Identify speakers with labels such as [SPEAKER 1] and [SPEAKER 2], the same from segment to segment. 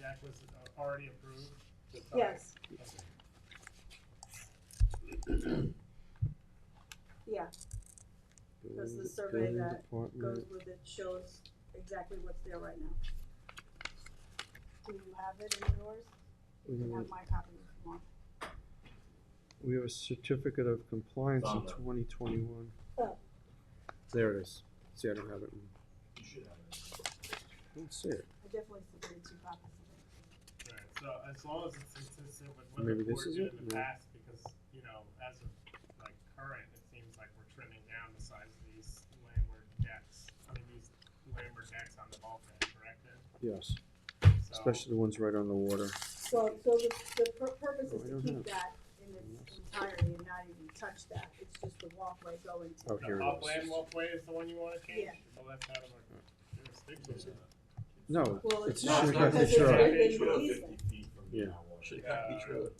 [SPEAKER 1] that was uh, already approved?
[SPEAKER 2] Yes,
[SPEAKER 1] Okay.
[SPEAKER 2] yeah, because the survey that goes
[SPEAKER 3] Mm-hmm.
[SPEAKER 2] with it shows exactly what's there right now. Do you have it in yours? You can
[SPEAKER 3] Mm-hmm.
[SPEAKER 2] have my copy if you want.
[SPEAKER 3] We have a certificate of compliance in twenty twenty-one.
[SPEAKER 2] Oh.
[SPEAKER 3] There it is. See, I don't have it. in-
[SPEAKER 1] You should have it.
[SPEAKER 3] I don't see it.
[SPEAKER 2] I definitely submitted two copies of it.
[SPEAKER 1] Right, so as long as it's consistent with what
[SPEAKER 3] Maybe
[SPEAKER 1] the
[SPEAKER 3] this
[SPEAKER 1] board
[SPEAKER 3] is
[SPEAKER 1] did
[SPEAKER 3] it?
[SPEAKER 1] in the
[SPEAKER 3] No.
[SPEAKER 1] past, because, you know, as of like current, it seems like we're trimming down the size of these landward decks. I mean, these landward decks on the bulkhead, correct? Ed?
[SPEAKER 3] Yes,
[SPEAKER 1] So-
[SPEAKER 3] especially the ones right on the water.
[SPEAKER 2] So, so the, the pur- purpose
[SPEAKER 3] Oh,
[SPEAKER 2] is
[SPEAKER 3] I
[SPEAKER 2] to
[SPEAKER 3] don't
[SPEAKER 2] keep
[SPEAKER 3] have-
[SPEAKER 2] that in its entirety and not even touch that, it's just the walkway going to.
[SPEAKER 3] Oh,
[SPEAKER 1] The
[SPEAKER 3] here it
[SPEAKER 1] upland
[SPEAKER 3] is.
[SPEAKER 1] walkway is the one you wanna change?
[SPEAKER 2] Yeah.
[SPEAKER 1] Well, that's out of our jurisdiction.
[SPEAKER 3] No,
[SPEAKER 2] Well, it's
[SPEAKER 3] it's just
[SPEAKER 2] not
[SPEAKER 3] we
[SPEAKER 2] because
[SPEAKER 3] got the
[SPEAKER 2] it's
[SPEAKER 1] shrub.
[SPEAKER 3] show.
[SPEAKER 2] within
[SPEAKER 1] They
[SPEAKER 2] the
[SPEAKER 4] Trail
[SPEAKER 2] easement.
[SPEAKER 4] fifty feet from
[SPEAKER 3] Yeah.
[SPEAKER 4] the tower. Should not be trailer.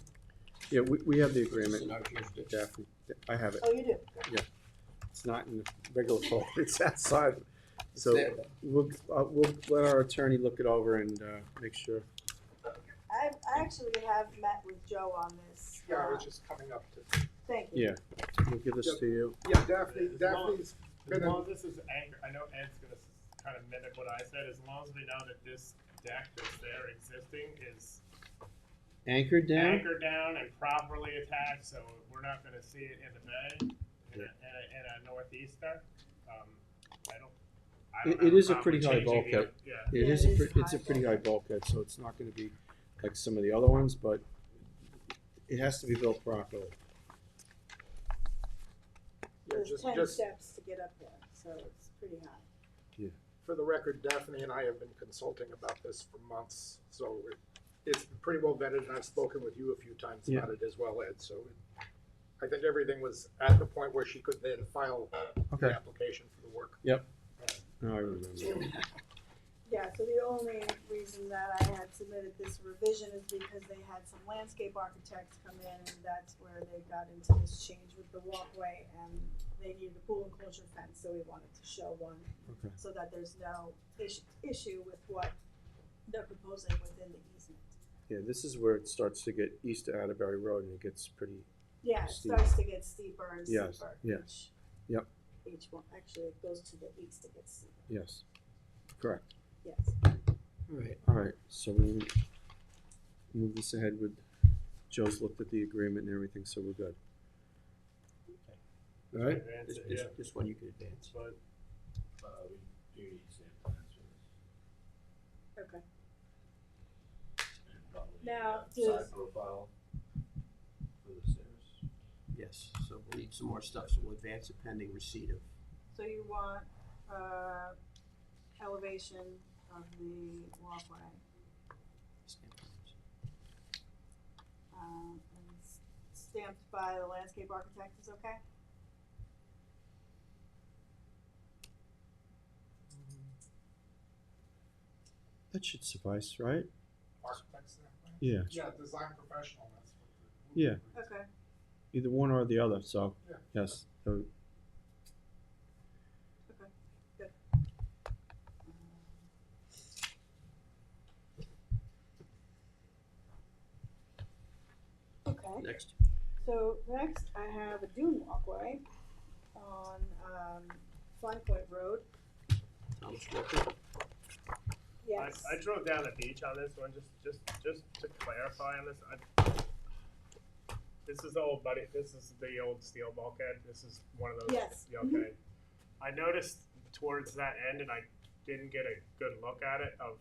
[SPEAKER 3] Yeah, we, we have the
[SPEAKER 4] It's in
[SPEAKER 3] agreement,
[SPEAKER 4] our jurisdiction.
[SPEAKER 3] Daphne. I have it.
[SPEAKER 2] Oh, you do?
[SPEAKER 3] It's not in the regular folder. It's outside.
[SPEAKER 4] It's
[SPEAKER 3] So
[SPEAKER 4] there, though.
[SPEAKER 3] we'll, uh, we'll let our attorney look it over and, uh, make sure.
[SPEAKER 2] I, I actually have met with Joe on this.
[SPEAKER 5] Yeah, I
[SPEAKER 2] uh,
[SPEAKER 5] was just coming up to,
[SPEAKER 2] Thank you.
[SPEAKER 3] Yeah, we'll give this to you.
[SPEAKER 5] yeah, Daphne,
[SPEAKER 1] As long-
[SPEAKER 5] Daphne's
[SPEAKER 1] As
[SPEAKER 5] been, in-
[SPEAKER 1] long as this is anchor, I know Ed's gonna kind of mimic what I said, as long as we know that this deck that's there existing is
[SPEAKER 3] Anchor down?
[SPEAKER 1] anchored down and properly attached, so we're not gonna see it in the bay, in a, in a, in a northeaster, um, I don't, I
[SPEAKER 3] It-
[SPEAKER 1] don't
[SPEAKER 3] it
[SPEAKER 1] have a
[SPEAKER 3] is a
[SPEAKER 1] problem
[SPEAKER 3] pretty
[SPEAKER 1] with
[SPEAKER 3] high
[SPEAKER 1] changing the-
[SPEAKER 3] bulkhead.
[SPEAKER 1] Yeah,
[SPEAKER 3] It
[SPEAKER 2] Yeah,
[SPEAKER 3] is,
[SPEAKER 2] it
[SPEAKER 3] a
[SPEAKER 2] is
[SPEAKER 3] pre-
[SPEAKER 2] a
[SPEAKER 3] it's a
[SPEAKER 2] high
[SPEAKER 3] pretty high bulkhead, so it's not gonna be like some of the other ones, but it has to be built properly.
[SPEAKER 5] yeah,
[SPEAKER 2] There's
[SPEAKER 5] just,
[SPEAKER 2] ten
[SPEAKER 5] just
[SPEAKER 2] steps to get up there, so it's pretty high.
[SPEAKER 5] for the record, Daphne and I have been consulting about this for months, so it- it's pretty well vetted, and I've spoken with you a few times
[SPEAKER 3] Yeah.
[SPEAKER 5] about it as well, Ed, so it- I think everything was at the point where she could then file the application for the work.
[SPEAKER 3] Now I remember.
[SPEAKER 2] Yeah, so the only reason that I had submitted this revision is because they had some landscape architects come in, and that's where they got into this change with the walkway, and they needed a pool enclosure fence, so we wanted to show one,
[SPEAKER 3] Okay.
[SPEAKER 2] so that there's no issue, issue with what they're proposing within the easement.
[SPEAKER 3] Yeah, this is where it starts to get east of Atterbury Road and it gets pretty,
[SPEAKER 2] Yeah, it
[SPEAKER 3] Steep.
[SPEAKER 2] starts to get steeper and
[SPEAKER 3] Yes,
[SPEAKER 2] steeper.
[SPEAKER 3] yeah.
[SPEAKER 2] each-
[SPEAKER 3] Yep.
[SPEAKER 2] Each one, actually, it goes to the east, it gets steeper,
[SPEAKER 3] yes, correct.
[SPEAKER 2] yes.
[SPEAKER 4] Right.
[SPEAKER 3] All right, so we move this ahead with, Joe's looked at the agreement and everything, so we're good. All right,
[SPEAKER 1] That's
[SPEAKER 4] This,
[SPEAKER 1] it,
[SPEAKER 4] this,
[SPEAKER 1] yeah.
[SPEAKER 4] this one you could advance.
[SPEAKER 1] But
[SPEAKER 4] Uh, we do need sand plans for this.
[SPEAKER 2] Okay.
[SPEAKER 4] And probably,
[SPEAKER 2] Now,
[SPEAKER 4] uh,
[SPEAKER 2] does-
[SPEAKER 4] Side profile for the stairs.
[SPEAKER 6] Yes, so we'll need some more stuff, so we'll advance it pending receipt of.
[SPEAKER 2] So you want, uh, elevation of the walkway,
[SPEAKER 6] stamp plans.
[SPEAKER 2] um, and s- stamped by the landscape architect is okay?
[SPEAKER 3] that should suffice, right?
[SPEAKER 5] Architects and everything?
[SPEAKER 3] Yeah,
[SPEAKER 5] Yeah, design professional, that's what. the-
[SPEAKER 3] Yeah.
[SPEAKER 2] Okay,
[SPEAKER 3] either one or the other, so,
[SPEAKER 5] Yeah.
[SPEAKER 3] yes, so
[SPEAKER 2] okay.
[SPEAKER 6] Next,
[SPEAKER 2] So next, I have a dune walkway on, um, Flying Point Road,
[SPEAKER 6] Thomas Walker,
[SPEAKER 1] I,
[SPEAKER 2] yes.
[SPEAKER 1] I drove down the beach on this one, just, just, just to clarify on this, I. This is the old buddy, this is the old steel bulkhead, this is one of those.
[SPEAKER 2] Yes. Mm-hmm.
[SPEAKER 1] Yeah, Okay. I noticed towards that end, and I didn't get a good look at it, of,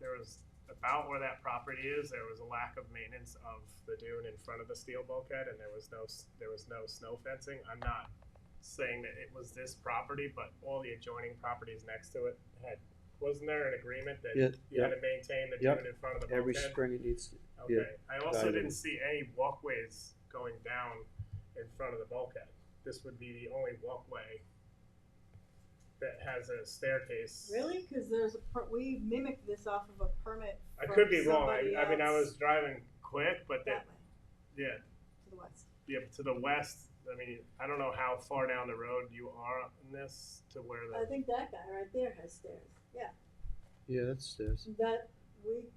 [SPEAKER 1] there was, about where that property is, there was a lack of maintenance of the dune in front of the steel bulkhead, and there was no, s- there was no snow fencing, I'm not saying that it was this property, but all the adjoining properties next to it had, wasn't there an agreement that
[SPEAKER 3] Yeah,
[SPEAKER 1] you had to maintain the
[SPEAKER 3] Yep.
[SPEAKER 1] dune in front of the bulkhead?
[SPEAKER 3] every spring it needs, yeah,
[SPEAKER 1] Okay, I also
[SPEAKER 3] value.
[SPEAKER 1] didn't see any walkways going down in front of the bulkhead. This would be the only walkway that has a staircase.
[SPEAKER 2] Really? Cause there's a, per- we mimicked this off of a permit
[SPEAKER 1] I
[SPEAKER 2] from
[SPEAKER 1] could be wrong,
[SPEAKER 2] somebody
[SPEAKER 1] I, I mean, I
[SPEAKER 2] else
[SPEAKER 1] was driving quick, but that,
[SPEAKER 2] that way,
[SPEAKER 1] yeah,
[SPEAKER 2] to the west.
[SPEAKER 1] yeah, to the west, I mean, I don't know how far down the road you are in this to where the.
[SPEAKER 2] I think that guy right there has stairs, yeah.
[SPEAKER 3] yeah, that's, that's.
[SPEAKER 2] That, we